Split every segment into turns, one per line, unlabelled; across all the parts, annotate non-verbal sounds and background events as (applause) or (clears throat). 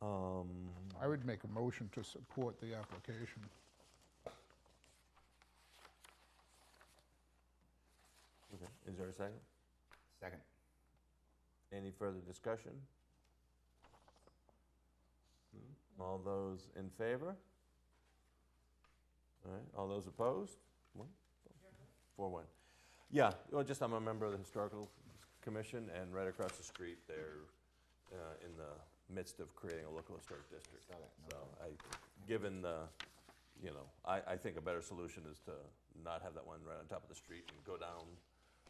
Um,
I would make a motion to support the application.
okay. Is there a second?
Second.
Any further discussion? Hmm? All those in favor? All right, all those opposed? One? Four, one. Yeah, well, just I'm a member of the Historical Commission, and right across the street, they're uh, in the midst of creating a local historic district.
Saw that,
So I, given the, you know, I, I think a better solution is to not have that one right on top of the street and go down.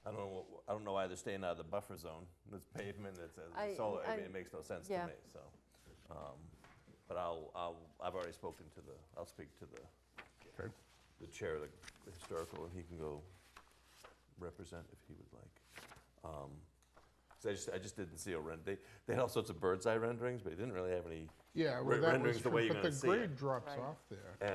I don't know, what- I don't know why they're staying out of the buffer zone. It's pavement, it's,
I-
it's solar, I mean,
I-
it makes no sense to
yeah.
me, so. um, But I'll, I'll, I've already spoken to the, I'll speak to the,
Okay.
the chair of the historical, and he can go represent if he would like. Um, 'cause I just, I just didn't see a rend, they, they had all sorts of bird's eye renderings, but they didn't really have any,
Yeah,
Re-
well, that
rendering's
was,
the
from-
way you're
but
gonna
the
see it.
grade drops
Right.
off there.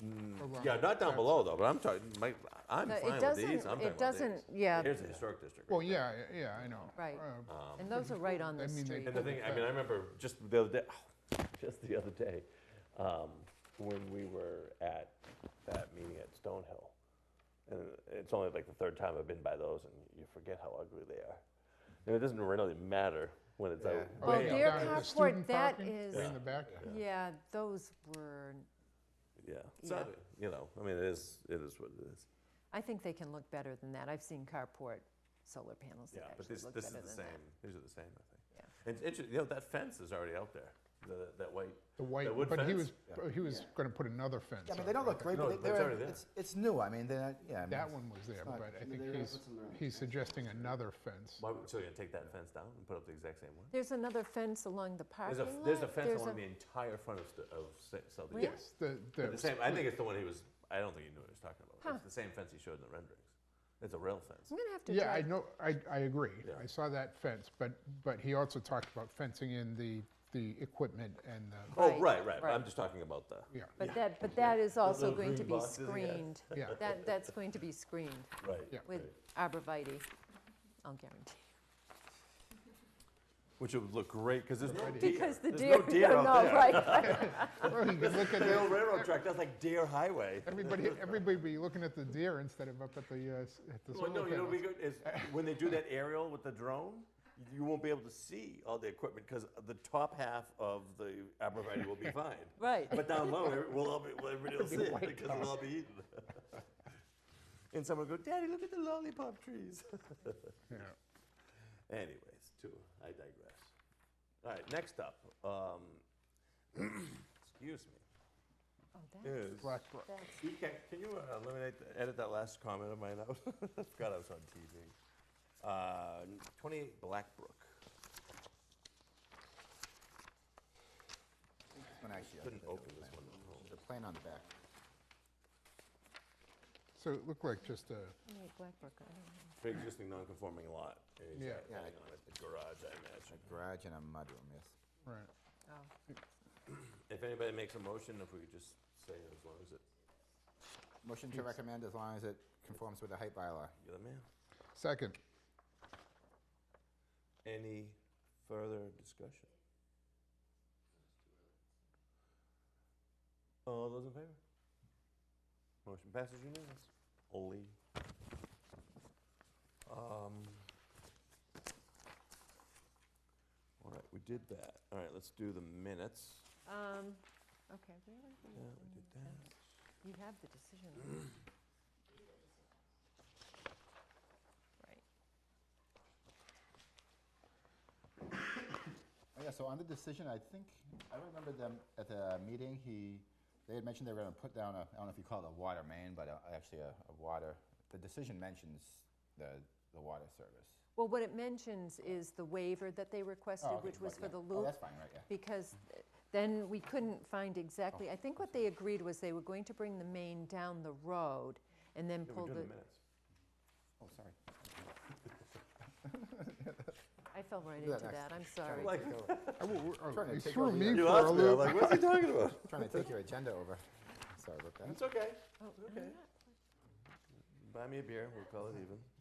and, mm,
around
yeah, not down
that-
below though, but I'm talking, my, I'm
No, it
fine with these, I'm talking
doesn't-
about these.
It doesn't, yeah,
Here's the historic district.
Well,
right
yeah, yeah, I know.
Right.
Uh,
and those are right on
I
the
mean, they
street.
And (laughs) the thing, I mean, I remember just the other day, (laughs) just the other day, um, when we were at that meeting at Stonehill. And it's only like the third time I've been by those, and you forget how ugly they are. And it doesn't really matter when it's out.
Yeah.
Well,
way out
Deer
Down at the
there.
Park- Carport,
student
that
parking,
is-
Way in the back.
Yeah, those were,
Yeah, so, you know, I mean, it is, it is what it is.
I think they can look better than that. I've seen carport solar panels
Yeah,
that
but
actually
this,
look
this
better
is
than that.
the same, these are the same, I think.
Yeah.
And it's interesting, you know, that fence is already out there, the, that white.
The white,
wood
but he
fence?
was, but he was gonna put another fence
Yeah, I mean,
up.
they don't look great,
No,
but they-
it's
they're,
already there.
it's, it's new, I mean, they're, not- yeah. I mean,
That
it's-
one was there,
not-
but I
I mean,
think
they're gonna
he's,
put some around
he's suggesting another fence.
Why, would- so you're gonna take that fence down and put up the exact same one?
There's another fence along the parking
There's a,
lot.
there's a fence
There's
along
a-
the entire front of, st- of Sa- Southeast.
Really?
Yes.
Yes, the,
The
the,
same, I think it's the one he was, I don't think he knew what he was talking about. It's the same fence he showed in the renderings. It's a rail fence.
I'm gonna have to
yeah, I
drive,
know, I, I agree.
Yeah.
I saw that fence, but, but he also talked about fencing in the, the equipment and the,
Oh,
Right,
right, right, but I'm
right.
just talking about the,
yeah,
but that, but
(laughs)
that is also
little
going to
green
be
boxes, yeah. (laughs)
screened.
Yeah.
That, that's going to be screened
right,
Yeah.
with arborvitae, I'll guarantee.
(laughs) which would look great, because there's no deer.
Because the
There's
deer, (laughs)
no deer
no,
out
no,
there. (laughs)
right.
Well, you can look at
The
the,
old railroad track, that's like deer highway.
everybody, everybody be looking at the deer instead of up at the, uh, s- at the
Well,
solar
no, you know, what'd
panels.
be good is, when they do that aerial with the drone, you won't be able to see all the equipment, because the top half of the arborvitae will be fine.
Right.
But down low, every- we'll all be, well, everybody will see it,
white
because it'll all be eaten. (laughs) And someone will go, Daddy, look at the lollipop trees. (laughs)
Yeah.
Anyways, two, I digress. All right, next up, um, (clears throat) excuse me,
Oh, that-
is,
Blackbrook.
that's-
you can, can you uh, eliminate, the- edit that last comment of mine out? (laughs) I forgot I was on TV. Uh, n- 28 Blackbrook.
This one actually, I
Couldn't
think
open this one. up.
The plan on the back.
So it looked like just a,
Wait, Blackbrook, I don't know.
Pre-existing non-conforming lot. and he's
Yeah.
got-
Yeah,
adding on a Garage, I imagine.
Garage and a mudroom, yes.
right,
Oh.
If anybody makes a motion, if we could just say it as long as it,
Motion to recommend as long as it conforms with the height bylaw.
you're the man.
second,
Any further discussion? All those in favor? Motion passes unanimous. Only. Um. All right, we did that. All right, let's do the minutes.
Um, okay, where are
Yeah,
we?
we did that.
You have the decision. right? Right.
Oh, Yeah, so on the decision, I think, I remember them at the meeting, he, they had mentioned they were gonna put down a, I don't know if you call it a water main, but a- actually a, a water, the decision mentions the, the water service.
Well, what it mentions is the waiver that they requested,
Oh, okay,
which was
right,
for
yeah.
the
Oh,
loop,
that's fine, right, yeah.
because th- then we couldn't find
Oh.
exactly, I think what they agreed was they were going to bring the main down the road and then
Yeah,
pull
We're doing the
the,
minutes.
Oh, sorry.
I fell right
Do that
into
next.
that, I'm sorry.
Like-
(laughs) I w- w-
Trying
oh,
to
You
take
threw
over
me
your-
for
You
a
asked me, I'm
loop.
like, what's he talking about?
Trying to take your agenda over. Sorry about that.
(laughs) It's okay.
Oh,
Okay. Buy me a beer, we'll call it even.